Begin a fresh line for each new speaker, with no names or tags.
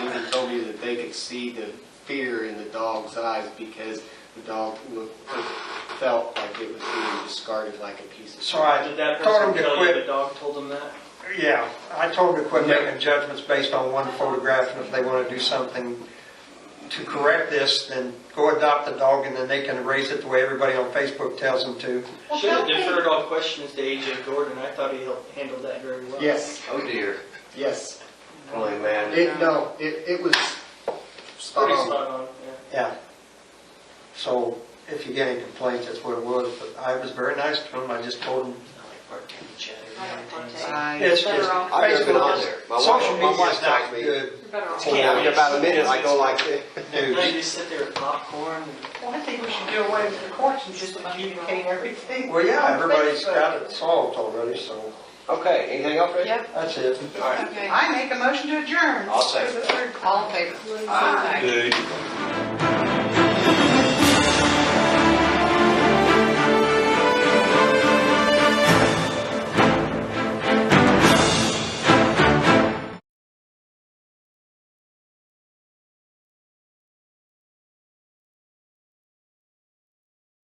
could see the fear in the dog's eyes because the dog looked, felt like it was being discarded like a piece of.
Sorry,
Did that
Told him
person
to
tell you
quit.
the dog told them that?
yeah, I told them to quit
Yeah.
making judgments based on one photograph, and if they want to do something to correct this, then go adopt the dog, and then they can raise it the way everybody on Facebook tells them to.
Well,
Should have
don't they-
deferred all questions to AJ Gordon. I thought he helped- handled that very well.
Yes,
Oh dear,
yes.
holy man.
It, no, it, it was um, spot
Uh-huh.
Pretty
on.
spot on, yeah.
Yeah. So if you get any complaints, that's what it was, but I was very nice to them, I just told them.
I like part two, chat,
I don't
everything.
partake.
It's
Better
just,
off-
I've never been
Facebook
on
is,
there. My wife-
social
my
media is
wife
not
tagged me.
good
Better off.
Well,
Yeah.
After about a minute, I go like this.
Now you
news.
just sit there with popcorn and
Well, I think we should do away with the courts and just communicate everything.
Well, yeah,
on
everybody's
Facebook.
got it solved already, so
Okay, anything else, Rich?
Yep,
that's it.
All
okay.
I make a motion to adjourn.
I'll second.
All in favor? Aye.